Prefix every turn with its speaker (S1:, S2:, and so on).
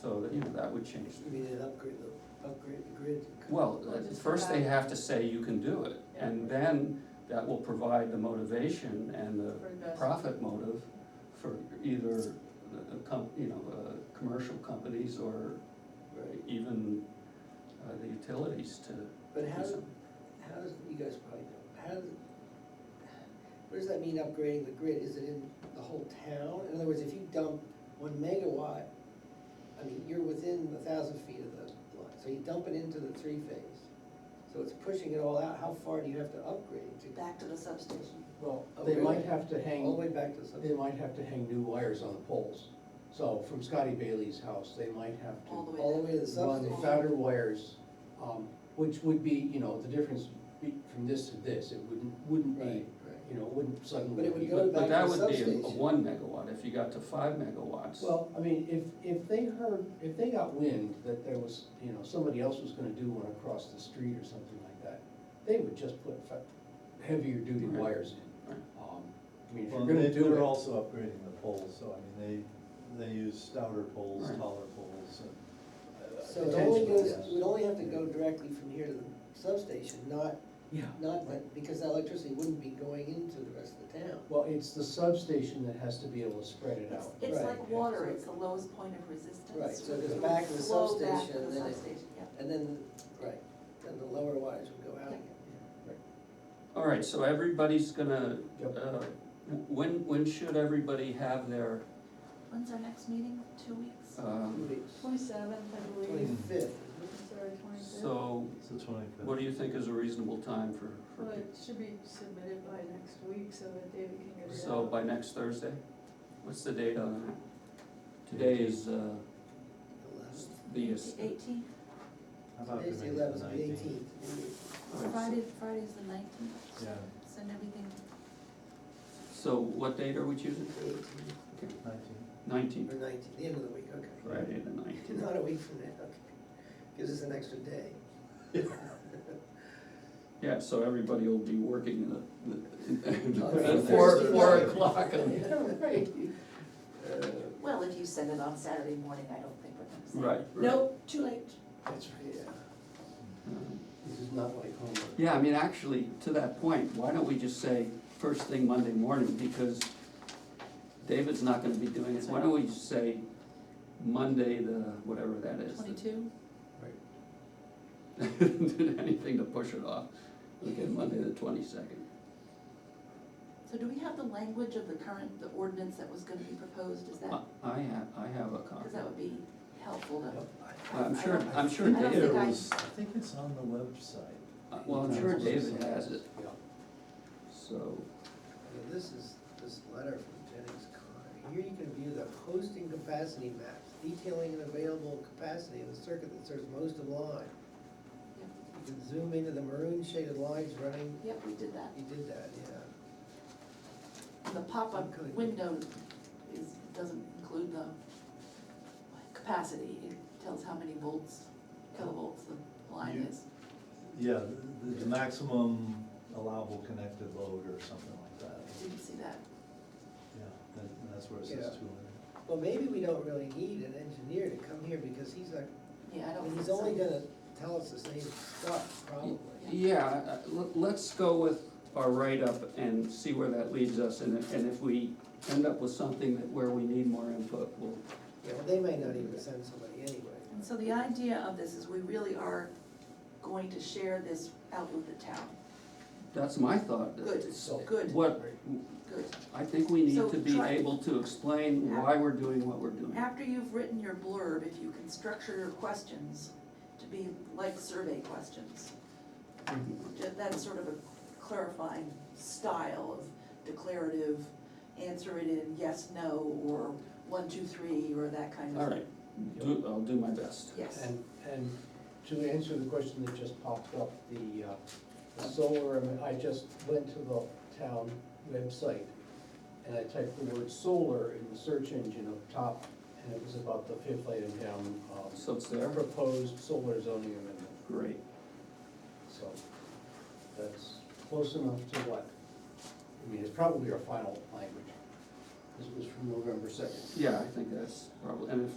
S1: So, that, you know, that would change.
S2: You mean an upgrade, the- upgrade the grid?
S1: Well,
S3: Well, just
S1: first they
S3: provide-
S1: have to say you can do it, and then that will provide the motivation and the
S3: For investment.
S1: profit motive for either the, the com, you know, uh, commercial companies or
S2: Right,
S1: even, uh, the utilities to
S2: but how,
S1: do
S2: do-
S1: something.
S2: how does, you guys probably know, how, do- what does that mean upgrading the grid? Is it in the whole town? In other words, if you dump one megawatt, I mean, you're within a thousand feet of the line, so you dump it into the three phase. So it's pushing it all out, how far do you have to upgrade to?
S3: Back to the substation.
S4: Well,
S2: Oh,
S4: they
S2: really?
S4: might have to
S2: All the
S4: hang,
S2: way back to something?
S4: they might have to hang new wires on the poles. So from Scotty Bailey's house, they might have
S3: All the
S4: to
S3: way.
S2: All the way to the
S4: run the
S2: substation?
S4: founder wires, um, which would be, you know, the difference be- from this to this, it wouldn't, wouldn't
S2: Right,
S4: be,
S2: right.
S4: you know, wouldn't
S2: But
S4: suddenly
S2: it would
S4: be.
S2: go
S4: but-
S2: back-
S1: But that
S2: to the
S1: would be a- a
S2: substation.
S1: one megawatt, if you got to five megawatts.
S4: Well, I mean, if, if they heard, if they got wind that there was, you know, somebody else was gonna do one across the street or something like that, they would just put fa- heavier duty
S1: Right.
S4: wires in.
S1: Right.
S4: Um, I mean, if
S5: Well,
S4: you're
S5: they,
S4: gonna do
S5: they're
S4: it.
S5: also upgrading the poles, so I mean, they, they use stouter poles,
S1: Right.
S5: taller poles, and.
S2: So it only goes,
S4: Potentially, yes.
S2: it would only have to go directly from here to the substation, not,
S4: Yeah.
S2: not that, because that electricity wouldn't be going into the rest of the town.
S4: Well, it's the substation that has to be able to spread it
S3: It's,
S4: out.
S3: it's
S2: Right.
S3: like water, it's the lowest point of resistance.
S2: Right, so
S3: It
S2: it goes
S3: would
S2: back to the
S3: flow back
S2: substation,
S3: to the
S2: then it-
S3: substation, yeah.
S2: And then, right, then the lower wires would go out again.
S1: All right, so everybody's gonna,
S4: Yep.
S1: uh, when, when should everybody have their,
S3: When's our next meeting? Two weeks?
S2: Two
S1: um,
S2: weeks.
S6: Twenty-seventh, I believe,
S2: Twenty-fifth,
S6: sorry, twenty-fifth.
S1: so
S5: It's the twenty-fifth.
S1: what do you think is a reasonable time for, for
S6: Well, it should be submitted by next week so that David can get it out.
S1: So by next Thursday? What's the date on that? Today is, uh,
S2: eleventh,
S1: the,
S3: Eighteenth,
S5: How about
S2: today's
S5: if
S2: the
S5: we make it
S2: eleventh,
S5: the
S2: the
S5: nineteenth?
S2: eighteenth.
S1: oh,
S3: Friday, Friday's the nineteenth.
S5: Yeah,
S3: Send everything,
S1: so what date are we choosing? Okay,
S5: nineteenth.
S2: Or
S1: Nineteenth,
S2: nineteenth, the end of the week, okay.
S1: Friday the nineteenth.
S2: Not a week from now, okay. Gives us an extra day.
S1: Yeah, so everybody will be working in the, the-
S2: Okay.
S1: at four,
S2: Thursday
S1: four
S2: night.
S1: o'clock on
S4: Yeah, right.
S3: well, if you send it on Saturday morning, I don't think we're gonna send it.
S1: Right. right.
S3: Nope, too late.
S4: That's right.
S2: Yeah.
S4: This is not like homework.
S1: Yeah, I mean, actually, to that point, why don't we just say first thing Monday morning, because David's not gonna be doing it, why don't we just say Monday the, whatever that is. the-
S3: Twenty-two?
S1: Did anything to push it off, okay, Monday the twenty-second.
S3: So do we have the language of the current, the ordinance that was gonna be proposed? Is that,
S1: I have, I have a copy.
S3: because that would be helpful to.
S1: I'm sure, I'm sure
S3: I don't
S1: David,
S3: think I-
S5: was- I think it's on the website.
S1: uh, well, I'm sure David has it,
S4: Yeah.
S1: so,
S2: Now, This is, this letter from Jennings Connor. Here you can view the hosting capacity maps detailing an available capacity of the circuit that serves most of line.
S3: Yeah.
S2: You can zoom into the maroon shaded lines running,
S3: Yep, we did that.
S2: you did that, yeah.
S3: And the pop-up
S2: Good.
S3: window is, doesn't include the capacity, it tells how many volts, kilovolts the line
S5: You-
S3: is.
S5: Yeah, the, the maximum allowable connected load or something like that,
S3: Didn't see that.
S5: yeah, and and that's where it says
S2: Yeah.
S5: two hundred.
S2: Well, maybe we don't really need an engineer to come here because he's like,
S3: Yeah, I don't think
S2: he's
S3: so.
S2: only gonna tell us the same stuff, probably.
S1: yeah, uh, let- let's go with our write-up and see where that leads us, and if, and if we end up with something that, where we need more input, we'll,
S2: Yeah, well, they might not even send somebody anyway.
S3: And so the idea of this is we really are going to share this out with the town.
S1: that's my thought.
S3: Good,
S4: So-
S3: good,
S1: What,
S3: good.
S1: I think we need
S3: So
S1: to be
S3: try-
S1: able to explain why we're doing what we're doing.
S3: After you've written your blurb, if you can structure your questions to be like survey questions, ju- that's sort of a clarifying style of declarative, answer it in yes, no, or one, two, three, or that kind of
S1: All
S3: thing.
S1: right, do, I'll do my best.
S3: Yes.
S4: And, and to answer the question that just popped up, the, uh, the solar, I mean, I just went to the town website and I typed the word solar in the search engine up top, and it was about the fifth item down, um,
S1: So it's there,
S4: proposed solar zoning amendment.
S1: great.
S4: So that's close enough to what, I mean, it's probably our final language. This was from November second.
S1: Yeah, I think that's probably, and if